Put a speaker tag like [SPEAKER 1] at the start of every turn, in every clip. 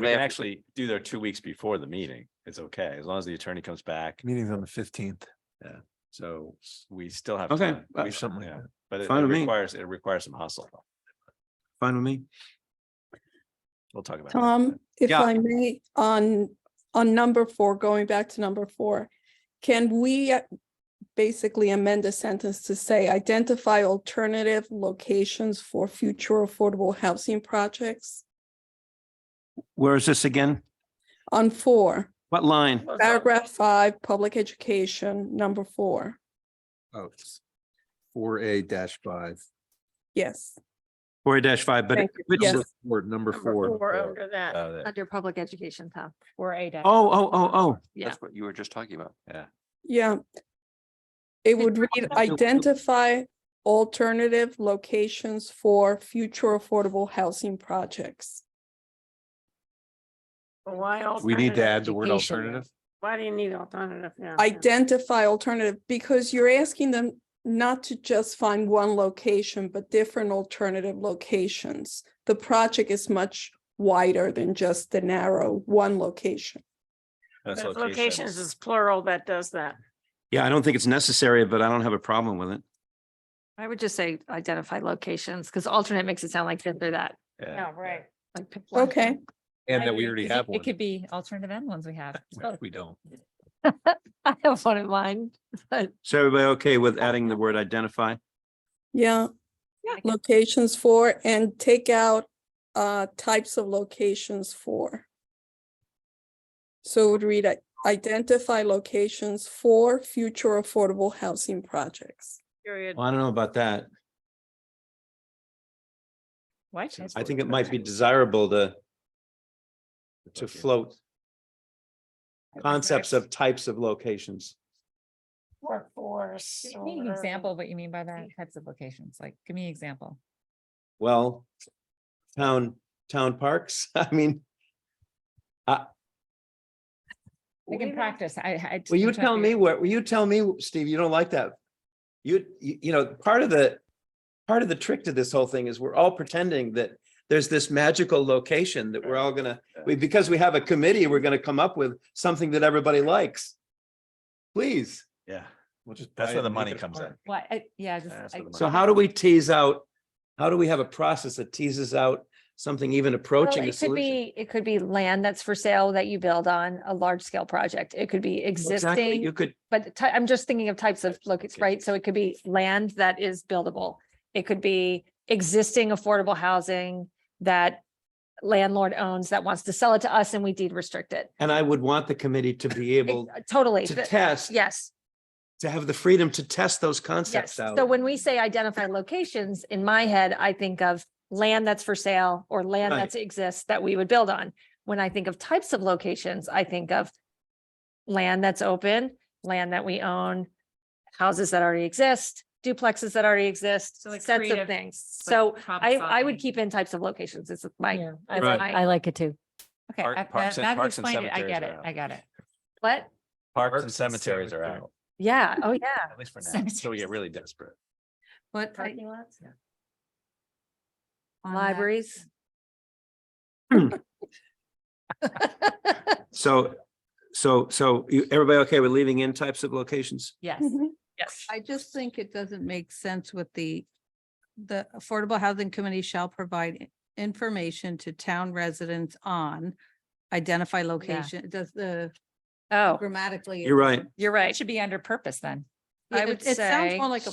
[SPEAKER 1] We
[SPEAKER 2] They
[SPEAKER 1] can
[SPEAKER 2] have to-
[SPEAKER 1] actually do their two weeks before the meeting. It's okay, as long as the attorney comes back.
[SPEAKER 3] Meeting's on the fifteenth,
[SPEAKER 1] So s- we still have.
[SPEAKER 2] Okay,
[SPEAKER 1] time.
[SPEAKER 2] uh,
[SPEAKER 1] We-
[SPEAKER 3] something like
[SPEAKER 1] yeah,
[SPEAKER 3] that.
[SPEAKER 1] But it-
[SPEAKER 2] Fine
[SPEAKER 1] it
[SPEAKER 2] with me.
[SPEAKER 1] requires, it requires some hustle.
[SPEAKER 2] Fine with me.
[SPEAKER 1] We'll talk about. it.
[SPEAKER 4] Tom, if
[SPEAKER 2] Yeah.
[SPEAKER 4] I may, on, on number four, going back to number four, can we uh, basically amend the sentence to say identify alternative locations for future affordable housing projects?
[SPEAKER 2] Where is this again?
[SPEAKER 4] On four,
[SPEAKER 2] What line?
[SPEAKER 4] paragraph five, public education, number four,
[SPEAKER 5] Oh, it's four A dash five.
[SPEAKER 4] yes.
[SPEAKER 2] Four dash five, but
[SPEAKER 4] Thank you.
[SPEAKER 2] which,
[SPEAKER 4] Yes.
[SPEAKER 5] Number four, number
[SPEAKER 6] Number Four
[SPEAKER 5] four.
[SPEAKER 6] under that,
[SPEAKER 1] Uh, that-
[SPEAKER 6] under public education, Tom, or A dash.
[SPEAKER 2] oh, oh, oh, oh.
[SPEAKER 6] Yeah,
[SPEAKER 7] That's what you were just talking about.
[SPEAKER 4] Yeah. It would read
[SPEAKER 6] also-
[SPEAKER 4] identify alternative locations for future affordable housing projecks.
[SPEAKER 6] why
[SPEAKER 5] We need to add the word
[SPEAKER 6] education?
[SPEAKER 5] alternative.
[SPEAKER 6] Why do you need alternative now?
[SPEAKER 4] Identify alternative, because you're asking them not to just find one location, but different alternative locations. The project is much wider than just the narrow one location.
[SPEAKER 1] that's
[SPEAKER 6] Locations is plural that does that.
[SPEAKER 2] Yeah, I don't think it's necessary, but I don't have a problem with it.
[SPEAKER 8] I would just say identify locations, because alternate makes it sound like this or that.
[SPEAKER 1] Yeah.
[SPEAKER 6] right.
[SPEAKER 8] like pick one.
[SPEAKER 4] Okay,
[SPEAKER 5] And that we already have one.
[SPEAKER 8] be alternative end ones we have.
[SPEAKER 5] Well, We don't.
[SPEAKER 8] I have one in mind, but
[SPEAKER 2] So everybody okay with adding the word identify?
[SPEAKER 4] yeah.
[SPEAKER 8] Yeah.
[SPEAKER 4] Locations for and take out uh types of locations for. So it would read i- identify locations for future affordable housing projects.
[SPEAKER 6] Period.
[SPEAKER 2] Well, I don't know about that.
[SPEAKER 8] what?
[SPEAKER 2] I think it might be desirable to to float concepts of types of locations.
[SPEAKER 6] Workforce.
[SPEAKER 9] Give me an example of what you mean by that, types of locations, like, give me an example.
[SPEAKER 2] Well, town, town parks, I mean.
[SPEAKER 9] We can practice, I, I.
[SPEAKER 2] Will you
[SPEAKER 9] I'm trying to
[SPEAKER 2] tell me
[SPEAKER 9] figure-
[SPEAKER 2] what, will you tell me, Steve, you don't like that? You, you, you know, part of the, part of the trick to this whole thing is we're all pretending that there's this magical location that we're all gonna, we, because we have a committee, we're gonna come up with something that everybody likes. Please.
[SPEAKER 1] Yeah,
[SPEAKER 5] We'll just
[SPEAKER 1] That's
[SPEAKER 5] buy
[SPEAKER 1] where
[SPEAKER 5] it
[SPEAKER 1] the
[SPEAKER 5] and make
[SPEAKER 1] money
[SPEAKER 5] it a
[SPEAKER 1] comes
[SPEAKER 5] park.
[SPEAKER 1] in.
[SPEAKER 9] What, I- yeah,
[SPEAKER 1] That's
[SPEAKER 9] just.
[SPEAKER 1] what
[SPEAKER 9] I-
[SPEAKER 1] I'm
[SPEAKER 2] So how do we tease out, how do we have a process that teases out something even approaching a
[SPEAKER 8] It could
[SPEAKER 2] solution?
[SPEAKER 8] be, it could be land that's for sale that you build on a large scale project. It could be
[SPEAKER 2] Exactly, You
[SPEAKER 8] existing,
[SPEAKER 2] could,
[SPEAKER 8] but ty- I'm just thinking of types of locates,
[SPEAKER 2] Okay.
[SPEAKER 8] right? So it could be land that is buildable. It could be existing affordable housing that landlord owns that wants to sell it to us and we deed restrict it.
[SPEAKER 2] and I would want the committee to be able
[SPEAKER 8] Ex- Totally.
[SPEAKER 2] to
[SPEAKER 8] The-
[SPEAKER 2] test,
[SPEAKER 8] Yes.
[SPEAKER 2] to have the freedom to test those
[SPEAKER 8] Yes,
[SPEAKER 2] concepts out.
[SPEAKER 8] so when we say identify locations, in my head, I think of land that's for sale or land
[SPEAKER 2] Right.
[SPEAKER 8] that exists that we would build on. When I think of types of locations, I think of land that's open, land that we own, houses that already exist, duplexes that already exist,
[SPEAKER 9] So like
[SPEAKER 8] sets of
[SPEAKER 9] creative,
[SPEAKER 8] things.
[SPEAKER 9] like
[SPEAKER 8] So
[SPEAKER 9] problem
[SPEAKER 8] I, I would
[SPEAKER 9] solving.
[SPEAKER 8] keep in types of locations. It's my,
[SPEAKER 9] Yeah,
[SPEAKER 8] it's
[SPEAKER 2] Right.
[SPEAKER 8] my-
[SPEAKER 6] like it too.
[SPEAKER 9] Okay,
[SPEAKER 1] Park-
[SPEAKER 9] I- that
[SPEAKER 1] parks and-
[SPEAKER 9] that
[SPEAKER 1] parks and
[SPEAKER 9] explained it, I
[SPEAKER 1] cemeteries
[SPEAKER 9] get
[SPEAKER 1] are
[SPEAKER 9] it,
[SPEAKER 1] out.
[SPEAKER 9] I got it.
[SPEAKER 8] what?
[SPEAKER 1] Parks and cemeteries are out,
[SPEAKER 8] Yeah, oh, yeah.
[SPEAKER 1] at least for now, until we get
[SPEAKER 9] Cemeteries.
[SPEAKER 1] really desperate.
[SPEAKER 9] What?
[SPEAKER 8] lots?
[SPEAKER 9] on that-
[SPEAKER 8] Libraries.
[SPEAKER 2] So, so, so you, everybody okay with leaving in types of locations?
[SPEAKER 9] Yes.
[SPEAKER 8] Yes.
[SPEAKER 10] I just think it doesn't make sense with the, the Affordable Housing Committee shall provide i- information to town residents on identify location, It does the
[SPEAKER 8] Oh,
[SPEAKER 10] grammatically.
[SPEAKER 2] You're right.
[SPEAKER 8] you're
[SPEAKER 9] It
[SPEAKER 8] right.
[SPEAKER 9] should be under purpose then.
[SPEAKER 8] I
[SPEAKER 10] it-
[SPEAKER 8] would
[SPEAKER 10] It sounds
[SPEAKER 8] say-
[SPEAKER 10] more like a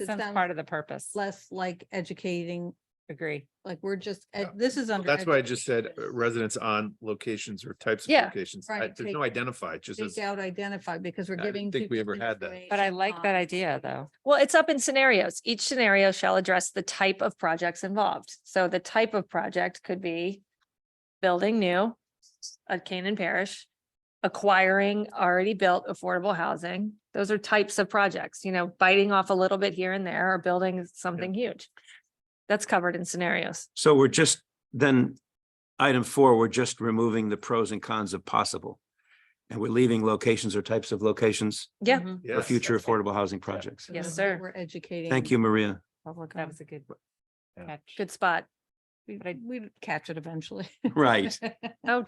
[SPEAKER 9] It
[SPEAKER 10] It
[SPEAKER 9] sounds part
[SPEAKER 10] sounds
[SPEAKER 9] of the purpose.
[SPEAKER 10] less like educating,
[SPEAKER 9] Agree.
[SPEAKER 10] like we're just, ed-
[SPEAKER 5] Yeah.
[SPEAKER 10] this is under.
[SPEAKER 5] That's why I just said uh,
[SPEAKER 10] education.
[SPEAKER 5] residents on locations or types of
[SPEAKER 8] Yeah.
[SPEAKER 5] locations. I-
[SPEAKER 10] Right,
[SPEAKER 5] There's
[SPEAKER 10] take-
[SPEAKER 5] no identify, just as.
[SPEAKER 10] Take out identify because we're
[SPEAKER 5] I didn't
[SPEAKER 10] giving.
[SPEAKER 5] think we
[SPEAKER 10] people
[SPEAKER 5] ever had that.
[SPEAKER 9] But I
[SPEAKER 10] information
[SPEAKER 9] like
[SPEAKER 10] on-
[SPEAKER 9] that idea, though.
[SPEAKER 8] Well, it's up in scenarios. Each scenario shall address the type of projects involved. So the type of project could be building new, a Canaan parish, acquiring already built affordable housing. Those are types of projects, you know, biting off a little bit here and there or building something huge. That's covered in scenarios.
[SPEAKER 2] So we're just, then, item four, we're just removing the pros and cons of possible. And we're leaving locations or types of locations
[SPEAKER 8] Yeah.
[SPEAKER 10] Mhm.
[SPEAKER 2] for
[SPEAKER 5] Yes.
[SPEAKER 2] future affordable housing projects.
[SPEAKER 10] So
[SPEAKER 8] Yes,
[SPEAKER 10] that
[SPEAKER 8] sir.
[SPEAKER 10] We're educating.
[SPEAKER 2] Thank you, Maria.
[SPEAKER 9] That was a good
[SPEAKER 1] Yeah.
[SPEAKER 9] catch.
[SPEAKER 8] Good spot.
[SPEAKER 10] We- We'd catch it eventually.
[SPEAKER 2] Right.
[SPEAKER 8] Oh,